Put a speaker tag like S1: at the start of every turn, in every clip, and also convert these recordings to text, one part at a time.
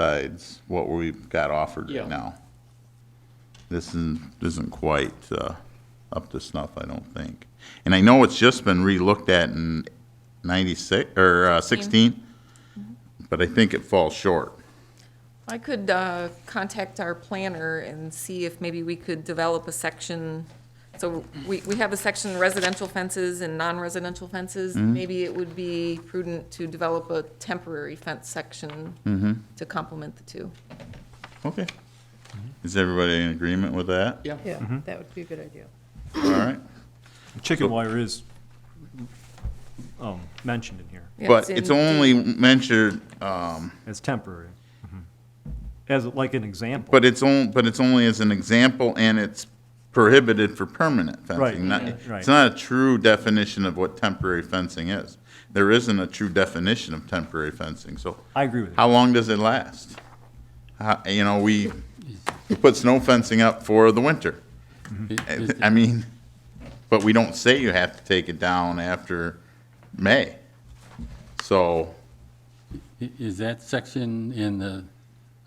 S1: besides what we've got offered
S2: Yeah.
S1: right now. This isn't, isn't quite, uh, up to snuff, I don't think. And I know it's just been relooked at in ninety-six, or uh, sixteen,
S3: Mm-hmm.
S1: but I think it falls short.
S4: I could uh, contact our planner and see if maybe we could develop a section. So we, we have a section residential fences and non-residential fences. Maybe it would be prudent to develop a temporary fence section to complement the two.
S1: Okay. Is everybody in agreement with that?
S2: Mm-hmm. Yeah.
S3: Yeah, that would be a good idea.
S1: All right.
S5: Chicken wire is um, mentioned in here.
S4: Yeah,
S1: But it's
S4: in-
S1: only mentioned, um,
S5: It's temporary. As like an example.
S1: Mm-hmm. But it's on, but it's only as an example, and it's prohibited for permanent
S5: Right,
S1: fencing. not-
S5: yeah,
S1: It's
S5: right.
S1: not a true definition of what temporary fencing is. There isn't a true definition of temporary fencing, so
S5: I agree with you.
S1: how long does it last? How- You know, we put snow fencing up for the winter. I mean, but we don't say you have to take it down after May. So,
S6: I- Is that section in the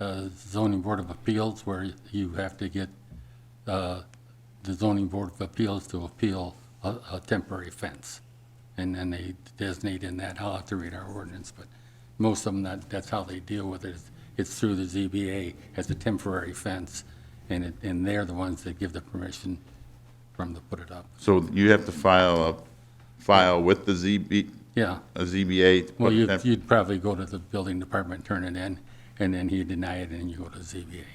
S6: uh, zoning board of appeals where you have to get uh, the zoning board of appeals to appeal a a temporary fence? And then they designate in that, I'll have to read our ordinance, but most of them, that, that's how they deal with it. is It's through the ZBA as a temporary fence, and it, and they're the ones that give the permission for them to put it up.
S1: so you have to file a, file with the ZB,
S6: Yeah.
S1: a ZBA. to
S6: Well,
S1: put
S6: you'd,
S1: temp-
S6: you'd probably go to the building department, turn it in, and then he'd deny it, and you go to ZBA.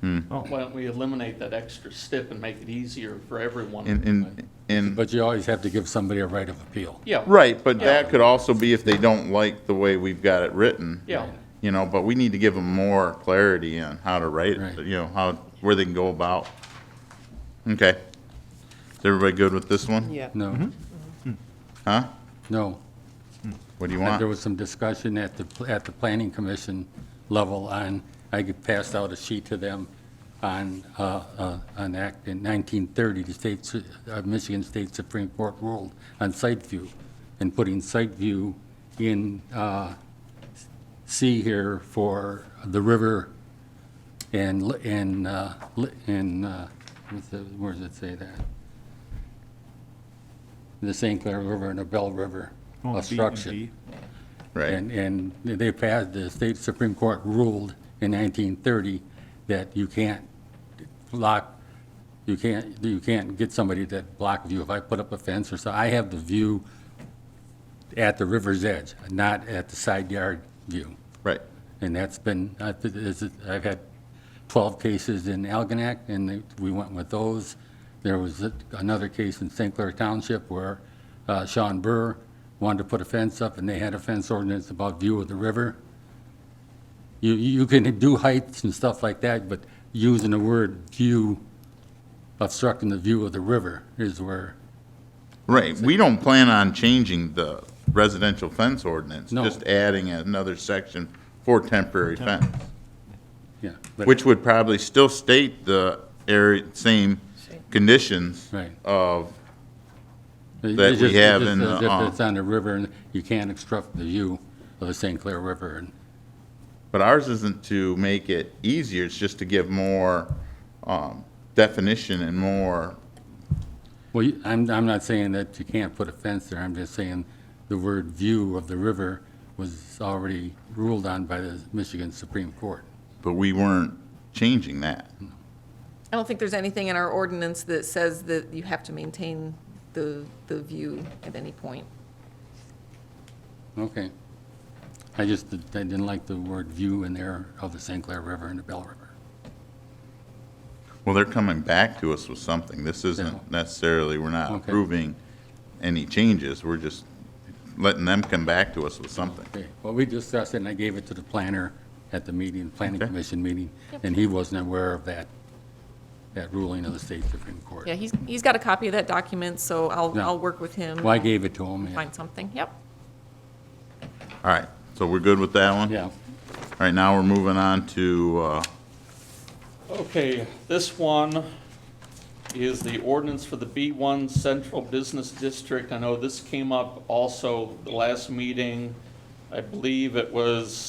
S2: Why don't we eliminate that extra step and make it easier for everyone?
S1: And, and, and,
S6: But you always have to give somebody a right of appeal.
S2: Yeah.
S1: right, but that could also be if they don't like the way we've got it written.
S2: Yeah.
S1: You know, but we need to give them more clarity on how to write it,
S6: Right.
S1: you know, how, where they can go about. Okay. Is everybody good with this one?
S3: Yeah.
S6: No,
S1: Huh?
S6: no.
S1: What do you
S6: There
S1: want?
S6: was some discussion at the, at the planning commission level on, I passed out a sheet to them on, uh, uh, an act in 1930, the state, su- uh, Michigan State Supreme Court ruled on site view, and putting site view in uh, C here for the river and, li- and, uh, li- and, uh, what's the- where does it say that? The St. Clair River and the Bell River,
S5: Oh, B
S6: a
S5: and
S6: structure.
S5: D.
S1: Right.
S6: And, and they passed, the state Supreme Court ruled in 1930 that you can't block, you can't, you can't get somebody that block view. If I put up a fence or so, I have the view at the river's edge, not at the side yard view.
S1: Right.
S6: And that's been, I th- is it- I've had 12 cases in Algonac, and they- we went with those. There was a- another case in St. Clair Township where uh, Sean Burr wanted to put a fence up, and they had a fence ordinance about view of the river. You, you can do heights and stuff like that, but using the word view, obstructing the view of the river is where,
S1: Right. We don't plan on changing the residential fence ordinance.
S6: No.
S1: Just adding another section for temporary fence.
S6: yeah. but-
S1: Which would probably still state the area, same conditions
S6: Right.
S1: of
S6: It's
S1: that we
S6: just-
S1: have
S6: it's
S1: in
S6: just
S1: the,
S6: as
S1: uh,
S6: if It's on the river, and you can't obstruct the view of the St. Clair River, and
S1: But ours isn't to make it easier, it's just to give more um, definition and more,
S6: Well, you- I'm, I'm not saying that you can't put a fence there, I'm just saying the word view of the river was already ruled on by the Michigan Supreme Court.
S1: but we weren't changing that.
S4: I don't think there's anything in our ordinance that says that you have to maintain the, the view at any point.
S6: Okay. I just, did- I didn't like the word view in there of the St. Clair River and the Bell River.
S1: Well, they're coming back to us with something, this
S6: Yeah.
S1: isn't necessarily, we're not
S6: Okay.
S1: approving any changes, we're just letting them come back to us with something.
S6: Okay, well, we discussed it, and I gave it to the planner at the meeting, Planning
S1: Okay.
S6: Commission meeting, and he wasn't aware of that, that ruling of the state Supreme Court.
S4: Yeah, he's, he's got a copy of that document, so I'll,
S6: Yeah.
S4: I'll work with him.
S6: Well, I gave it to him, yeah.
S4: Find something, yep.
S1: All right, so we're good with that one?
S6: yeah.
S1: All right, now we're moving on to, uh,
S2: Okay, this one is the ordinance for the B1 Central Business District. I know this came up also the last meeting. I believe it was